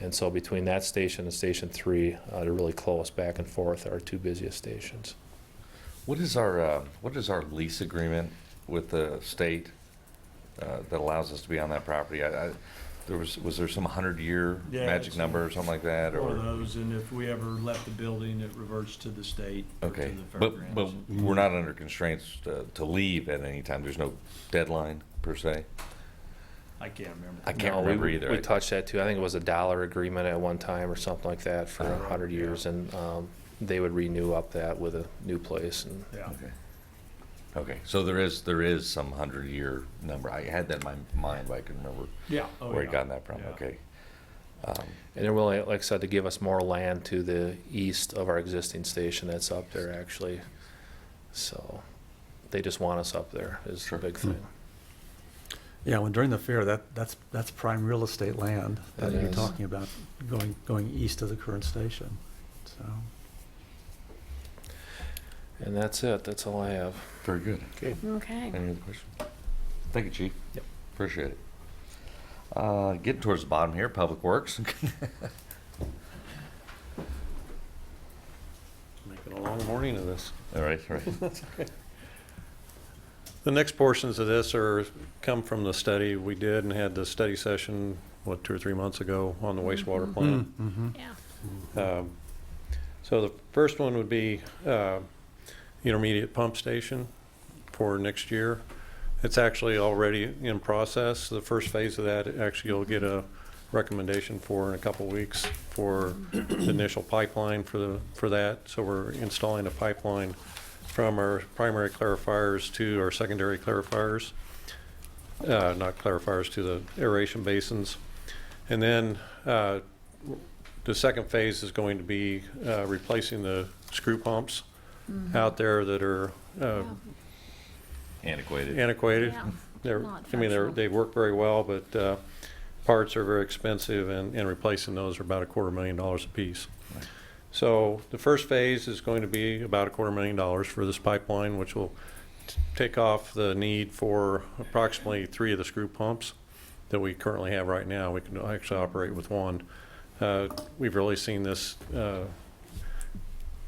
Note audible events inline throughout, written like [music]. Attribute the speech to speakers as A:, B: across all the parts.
A: And so between that station and Station 3, uh, they're really close, back and forth, are our two busiest stations.
B: What is our, uh, what is our lease agreement with the state uh, that allows us to be on that property? I, I- there was, was there some 100-year
C: Yeah,
B: magic
C: it's-
B: number or something like that,
C: One of
B: or?
C: those, and if we ever left the building, it reverts to the state or to
B: Okay,
C: the
B: but, but
C: fairgrounds.
B: we're not under constraints to, to leave at any time, there's no deadline, per se?
C: I can't remember.
B: I can't
A: No, we-
B: remember either.
A: We
B: I-
A: touched that too. I think it was a dollar agreement at one time or something like that for
B: Oh,
A: 100
C: yeah.
A: years. And um, they would renew up that with a new place and
C: Yeah.
B: Okay. Okay, so there is, there is some 100-year number, I had that in my mind, but I couldn't remember
C: Yeah. Oh,
B: where I
C: yeah.
B: got that from,
C: Yeah.
B: okay. Um,
A: And they're willing, like I said, to give us more land to the east of our existing station that's up there, actually. So they just want us up there is the
B: Sure. Hmm.
A: big thing.
D: Yeah, when during the fair, that, that's, that's prime real estate land that
A: It
D: you're
A: is.
D: talking about, going, going east of the current station, so.
A: And that's it. That's all I have.
B: Very good.
E: Okay.
B: Any other questions? Thank you, Chief.
A: Yep.
B: Appreciate it. Uh, Getting towards the bottom here, Public Works. [laughs]
F: Making a long morning of this.
B: All right, all right.
F: The next portions of this are, come from the study we did and had the study session, what, two or three months ago on the wastewater plant.
D: Mm-hmm.
E: Yeah.
F: Um, So the first one would be uh, intermediate pump station for next year. It's actually already in process. The first phase of that, actually, you'll get a recommendation for in a couple weeks for the initial pipeline for the, for that. So we're installing a pipeline from our primary clarifiers to our secondary clarifiers, uh, not clarifiers, to the aeration basins. And then uh, the second phase is going to be uh, replacing the screw pumps out there that are uh,
B: Antiquated.
F: antiquated.
E: Yeah.
F: They're,
E: Not
F: I mean, they're,
E: functional.
F: they work very well, but uh, parts are very expensive and, and replacing those are about a quarter million dollars apiece.
B: Right.
F: So the first phase is going to be about a quarter million dollars for this pipeline, which will t- take off the need for approximately three of the screw pumps that we currently have right now. We can actually operate with one. Uh, We've really seen this uh,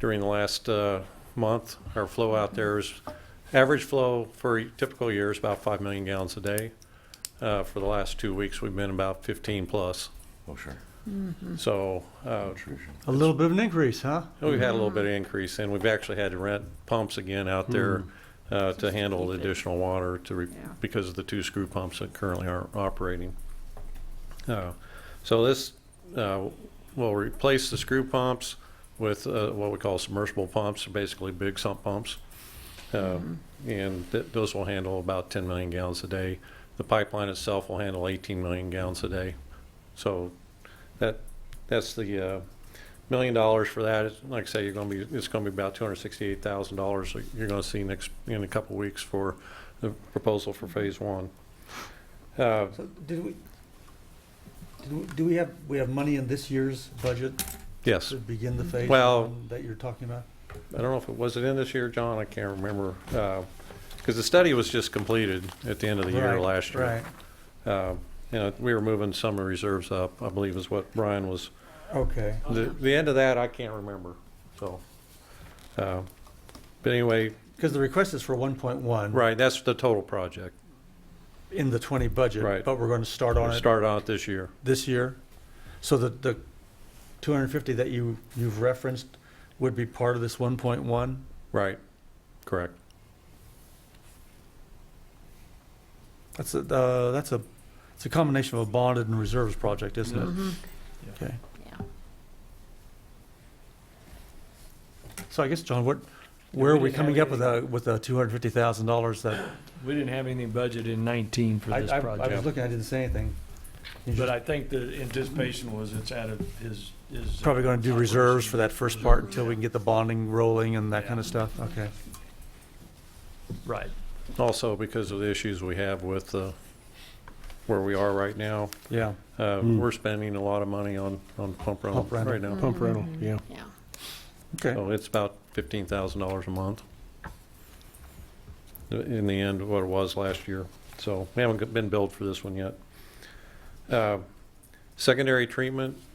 F: during the last uh, month. Our flow out there is, average flow for a typical year is about 5 million gallons a day. Uh, For the last two weeks, we've been about 15 plus.
B: Oh, sure.
E: Hmm.
F: So uh,
B: Intrusion.
D: A little bit of an increase, huh?
F: we've had a
E: Hmm.
F: little bit of increase, and we've actually had to rent pumps again out there uh, to handle the
E: Hmm. keep it.
F: additional water to, re-
E: Yeah.
F: because of the two screw pumps that currently aren't operating. Uh, So this uh, will replace the screw pumps with uh, what we call submersible pumps, basically big sump pumps. Uh, And th- those will handle about 10 million gallons a day. The pipeline itself will handle 18 million gallons a day. So that, that's the uh, million dollars for that. It's- Like I say, you're going to be, it's going to be about $268,000 that you're going to see next, in a couple weeks for the proposal for phase one. Uh,
D: So did we, did we, do we have, we have money in this year's budget
F: Yes,
D: to begin the phase
F: Well-
D: one that you're talking about?
F: I don't know if it was it in this year, John, I can't remember. Because the study was just completed at the end of the year
D: Right,
F: last year.
D: Right,
F: Uh, You know, we were moving some reserves up, I believe is what Brian was
D: okay.
F: The, the end of that, I can't remember, so. uh, But anyway,
D: Because the request is for one point one.
F: right, that's the total project.
D: In the twenty budget.
F: Right.
D: But we're going to start on
F: We
D: it
F: started on it this year.
D: this year. So the, the two hundred and fifty that you, you've referenced would be part of this one point one?
F: Right, correct.
D: That's a, uh, that's a, it's a combination of a bonded and reserves project, isn't it?
E: Mm-hmm.
D: Okay.
E: Yeah.
D: So I guess, John, what, where are
C: we
D: we
C: didn't have
D: coming up with
C: any-
D: a, with a two hundred fifty thousand dollars that?
C: We didn't have anything budgeted in nineteen for
D: I,
C: this
D: I I was
C: project,
D: looking, I didn't say anything. You
C: but
D: just
C: I think the anticipation was it's out of his, his. uh,
D: Probably gonna do reserves for that first part until we
C: Reserves,
D: can get the bonding rolling and that kind of stuff, okay.
C: Right.
F: Also, because of the issues we have with uh, where we are right now,
D: Yeah,
F: uh, we're spending a lot of money on, on pump rental
D: Pump Hmm. rental.
F: right now.
E: Pump rental,
D: Mm-hmm.
E: yeah. Yeah.
D: okay.
F: So it's about fifteen thousand dollars a month. In the end, what it was last year. So we haven't been billed for this one yet. Uh, Secondary treatment